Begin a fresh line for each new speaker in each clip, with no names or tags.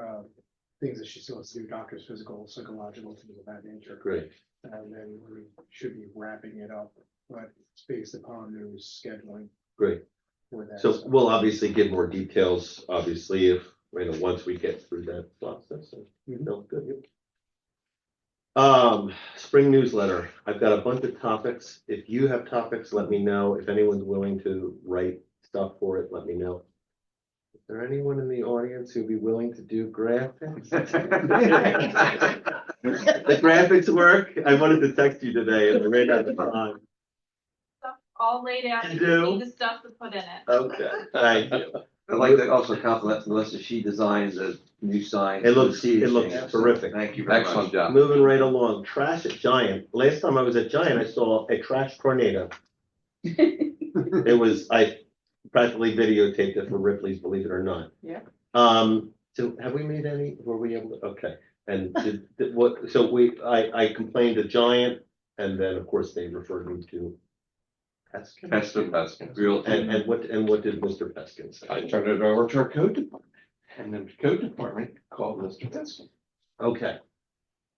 uh, things that she still has to do, doctor's physical, psychological, things of that nature.
Great.
And then we should be wrapping it up, but it's based upon their scheduling.
Great.
For that.
So we'll obviously give more details, obviously, if, you know, once we get through that process. and-
Mhm.
No, good. Um, spring newsletter. I've got a bunch of topics. If you have topics, let me know. If anyone's willing to write stuff for it, let me know. Is there anyone in the audience who'd be willing to do graphics? The graphics work. I wanted to text you today and I ran out of time.
stuff all laid out,
You
you just
do?
need the stuff to put in it.
Okay, thank you.
I'd like to also compliment Melissa, she designs a new sign.
It looks-
She
it
is
looks
fantastic.
terrific.
Thank you very much.
Excellent job.
Moving right along, trash at Giant. Last time I was at Giant, I saw a trash tornado. It was, I practically videotaped it for Ripley's, believe it or not.
Yeah.
Um, so have we made any, were we able to, okay, and did, did what, so we, I, I complained to Giant, and then, of course, they referred me to Peskin.
Peston, Peston, real.
And, and what, and what did Mr. Peskin
I
say?
turned it over to our code department, and then the code department called Mr. Peston.
Okay.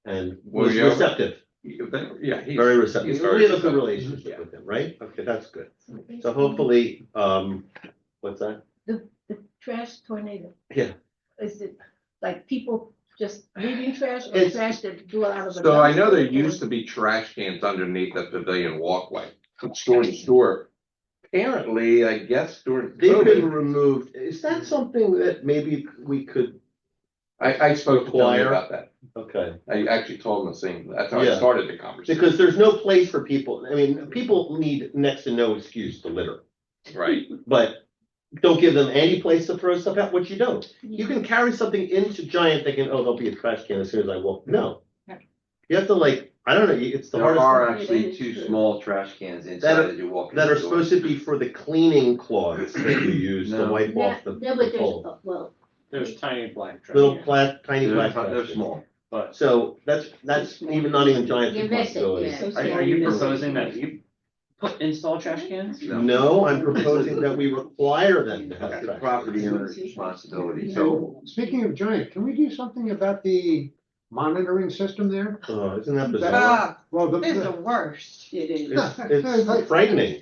And
Were
was
you-
receptive.
Yeah, he's.
Very receptive.
he's
We
very
have a
receptive.
good relationship with them, right? Okay, that's good. So hopefully, um, what's that?
The trash tornado.
Yeah.
Is it like people just leaving trash or
It's-
trash that blew out of the?
So I know there used to be trash cans underneath the pavilion walkway, from store to store. Apparently, I guess during
They've been
COVID,
removed. Is that something that maybe we could?
I, I spoke to Tony
Choir.
about that.
Okay.
I actually told him the same, that's how I
Yeah.
started the conversation.
Because there's no place for people. I mean, people need next to no excuse to litter,
Right,
but don't give them any place to throw stuff out, which you don't. You can carry something into Giant thinking, oh, there'll be a trash can as soon as I walk. No.
Yeah.
You have to like, I don't know, it's the
There
hardest.
are
thing.
actually two small trash cans
That
inside
are-
as you walk. in
that
the
are
door.
supposed to be for the cleaning cloths that you use to
No.
wipe off the
Yeah, but
the
there's,
bowl.
oh, well,
There's tiny black
Little
trash,
plat, tiny
They're
black.
ti- They're
packages.
small.
but
So that's, that's even not even giant
You're missing,
responsibility.
yeah.
are are you proposing that you put, install trash cans?
No, I'm proposing that we require them to have
That's the
trash.
property owner's responsibility, so
So, speaking of giant, can we do something about the monitoring system there?
Oh, isn't that bizarre?
Bob,
Well, the,
it's the
the-
worst. It is.
It's, it's frightening.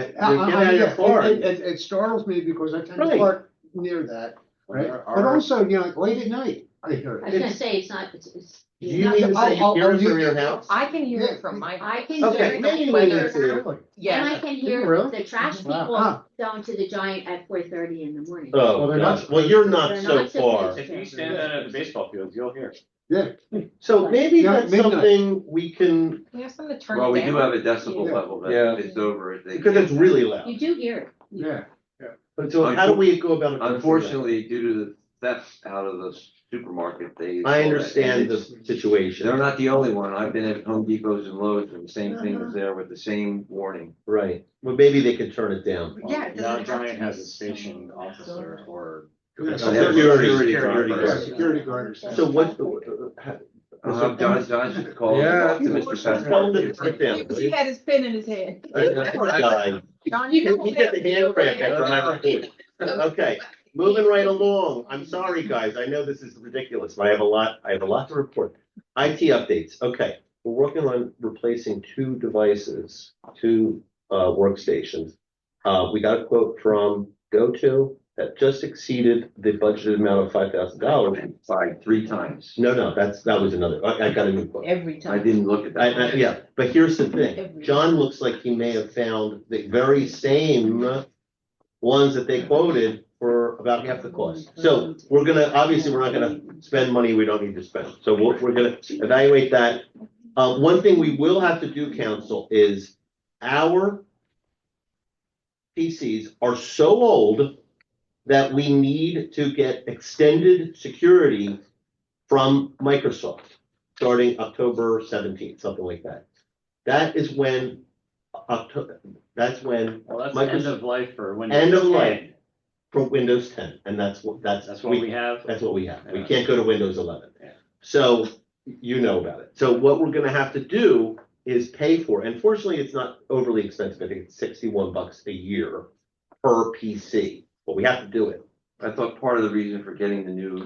I-
you get
I-
out of your
Uh, yeah,
car.
It, it- it startles me because I tend to
Right.
park near that, right?
Our-
But
our-
also, you know, like late at night, I hear
I
it.
was gonna say, it's not, it's, it's.
Do you need to
I'll-
say
I'll-
here
I'll
is your
use-
rear house?
I can hear
Yeah.
it from my,
I can
Okay,
hear
then
the
you need
weather,
to say it.
and
yeah,
I can
you
hear
really?
the trash
Wow.
people
Ah.
going to the giant at four thirty in the morning.
Oh,
Well, they're
gosh.
not-
well, you're not
They're
so
not
far.
supposed
If you stand out at the baseball field, you'll hear.
So maybe
Yeah,
that's
midnight.
something we can,
we ask them to turn
Well, we do
down.
have a decibel
Yeah.
level
Yeah.
that if it's over. they-
because it's really loud.
You do hear it.
Yeah,
But so how do we go about? addressing that?
Unfortunately, due to the theft out of the supermarket, they.
I understand the
They're
situation,
not the only one. I've been at Home Depots and Lowe's and the same thing
Uh-huh.
was there with the same warning.
right? Well, maybe they could turn it down.
Yeah, it doesn't
Now
have to
Giant
be
has a stationed officer or.
Yeah.
So they have a
Security,
guard
security
first.
yeah, security guard or something.
So what, how-
I'll have Uh-huh. John, John should call.
Yeah.
talk to Uh, Mr. Peskin.
tell them to turn it down.
He had his pin in his hand.
Guy.
Don,
He
you can
did the hand crank after my report. Okay, moving right along. I'm sorry, guys. I know this is ridiculous, but I have a lot, I have a lot to report. IT updates. Okay, we're working on replacing two devices, two uh workstations. Uh, we got a quote from GoTo that just exceeded the budgeted amount of five thousand dollars.
Five, three times.
No, no, that's, that was another, I, I got a new quote.
Every
I
time.
didn't look at
I,
that.
I, yeah, but here's the thing, John looks like he may have found the very same ones that they quoted for about half the cost. So we're gonna, obviously, we're not gonna spend money we don't need to spend, so we're, we're gonna evaluate that. Uh, one thing we will have to do, council, is our PCs are so old that we need to get extended security from Microsoft starting October seventeenth, something like that. That is when October, that's when,
Well, that's
Microsoft-
end of life for Windows.
End of
10.
life. for Windows ten, and that's what, that's.
That's what we have.
That's what we have. We
Yeah.
can't go to Windows eleven.
Yeah.
So you know about it. So what we're gonna have to do is pay for, it. and fortunately, it's not overly expensive. I think it's sixty-one bucks a year per PC, but we have to do it.
I thought part of the reason for getting the new